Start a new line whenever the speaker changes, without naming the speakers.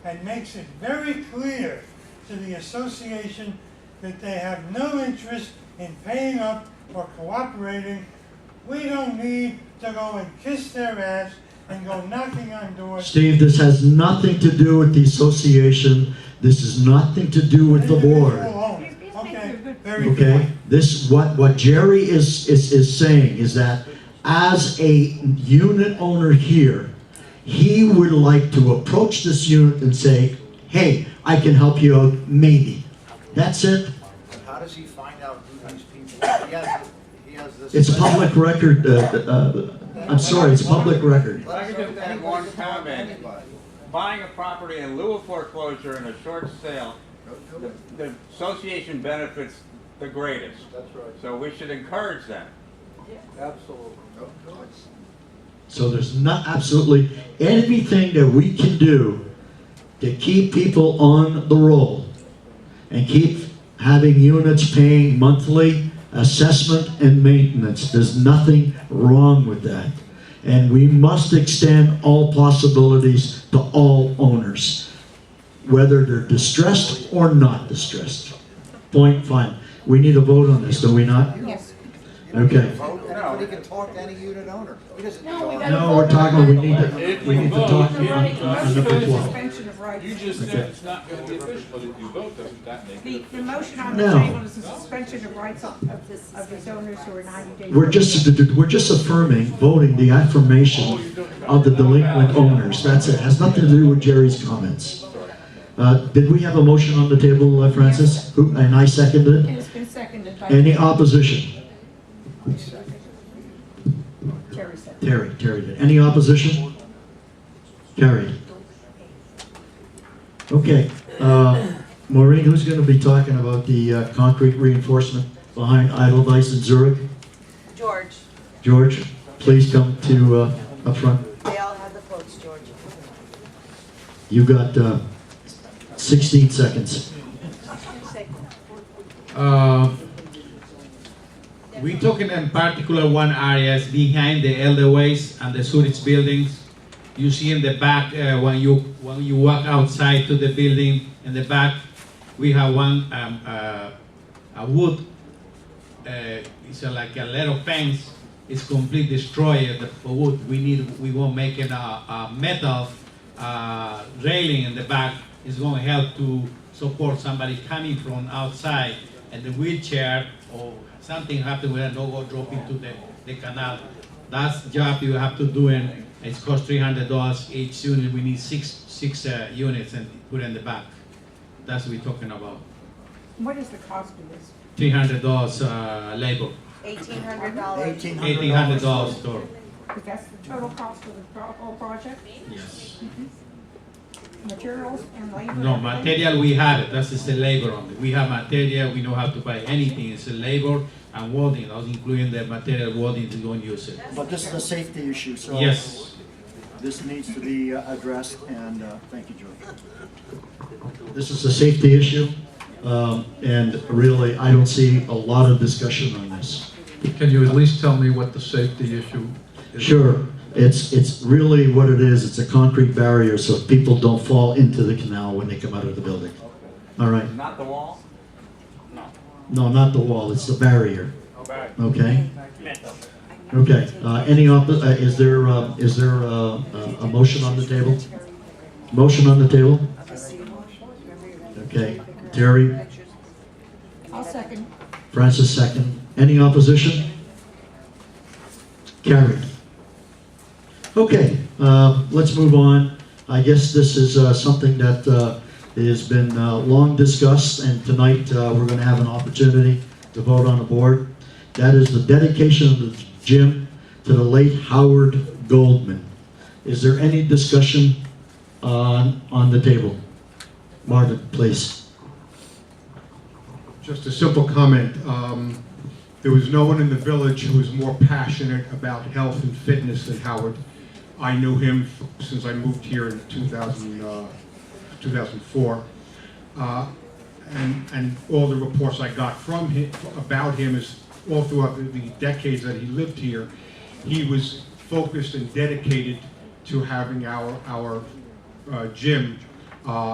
and makes it very clear to the association that they have no interest in paying up or cooperating, we don't need to go and kiss their ass and go knocking on doors.
Steve, this has nothing to do with the association. This is nothing to do with the board.
Individual
These-
owners.
these things are
Okay,
good.
very good.
Okay? This, what, what Jerry is, is, is saying is that as a unit owner here, he would like to approach this unit and say, hey, I can help you out, maybe. That's it.
But how does he find out who these people are? He has, he has this.
It's public record, uh, uh, I'm sorry, it's public record.
Let us
I could just add one comment.
Anybody.
Buying a property in lieu of foreclosure in a short sale,
Go- go-
the, the association benefits the greatest.
That's right.
So we should encourage that.
Absolutely. Go- go.
So there's not absolutely anything that we can do to keep people on the roll and keep having units paying monthly assessment and maintenance. There's nothing wrong with that. And we must extend all possibilities to all owners, whether they're distressed or not distressed. Point fine. We need a vote on this, do we not?
Yes.
You don't get
Okay.
to vote,
No.
Anybody can talk to any unit owner. He doesn't.
No, we
talk.
gotta-
No, we're talking, we need to,
If
we
we
need to
vote,
talk
if
on
we
on
vote,
number
it's
twelve.
Suspension of rights.
You just said it's not gonna be official, but if you vote, doesn't that make
The,
it?
the motion on the
No.
table is the suspension of rights of, of this- of these owners who are ninety days.
We're just, we're just affirming, voting the affirmation of the delinquent owners, that's it, has nothing to do with Jerry's comments. Uh, did we have a motion on the table, uh, Francis? Who, and I seconded it?
It's been seconded by
Any opposition?
Terry said.
Terry, Terry did, any opposition? Carried. Okay, uh, Maureen, who's gonna be talking about the uh, concrete reinforcement behind Edelweiss in Zurich?
George,
George, please come to, uh, up front.
they all have the quotes, George.
You got uh, 16 seconds.
Uh, we took in in particular one areas behind the elderways and the sewage buildings. You see in the back uh, when you when you walk outside to the building in the back, we have one um, uh, a wood. Uh, it's a, like a little fence. It's complete destroyed. The wood we need we won't make it a, a metal uh, railing in the back. It's going to help to support somebody coming from outside and the wheelchair or something happen where no go drop into the, the canal. That's job you have to do and it's cost three hundred dollars each unit. We need six six uh, units and put in the back. That's what we're talking about.
What is the cost of this?
Three hundred dollars uh, labor,
Eighteen hundred dollars.
eighteen hundred dollars store.
Because that's the total cost of the pro- whole project,
Yes.
materials and labor.
No
and everything?
material. We have it. That's just the labor on it. We have material. We know how to buy anything. It's the labor and welding. That's including the material welding. We don't use it.
But this is a safety issue, so
Yes.
this needs to be uh, addressed, and uh, thank you, George.
This is a safety issue, um, and really, I don't see a lot of discussion on this.
Can you at least tell me what the safety issue is?
Sure, it's, it's really what it is, it's a concrete barrier so people don't fall into the canal when they come out of the building. All right,
Not the wall?
no, not the wall, it's the barrier,
Okay.
okay? Okay, uh, any, oppo- uh, is there, uh, is there uh, a a motion on the table? Motion on the table? Okay, Terry,
I'll second.
Francis second. Any opposition? Carried. Okay, uh, let's move on. I guess this is uh, something that uh, has been uh, long discussed, and tonight uh, we're going to have an opportunity to vote on the board. That is the dedication of the gym to the late Howard Goldman. Is there any discussion on, on the table? Marvin, please.
Just a simple comment. Um, There was no one in the village who was more passionate about health and fitness than Howard. I knew him f- since I moved here in 2000, uh, 2004. Uh, And, and all the reports I got from him, about him is all throughout the- the decades that he lived here, he was focused and dedicated to having our, our uh, gym
Uh,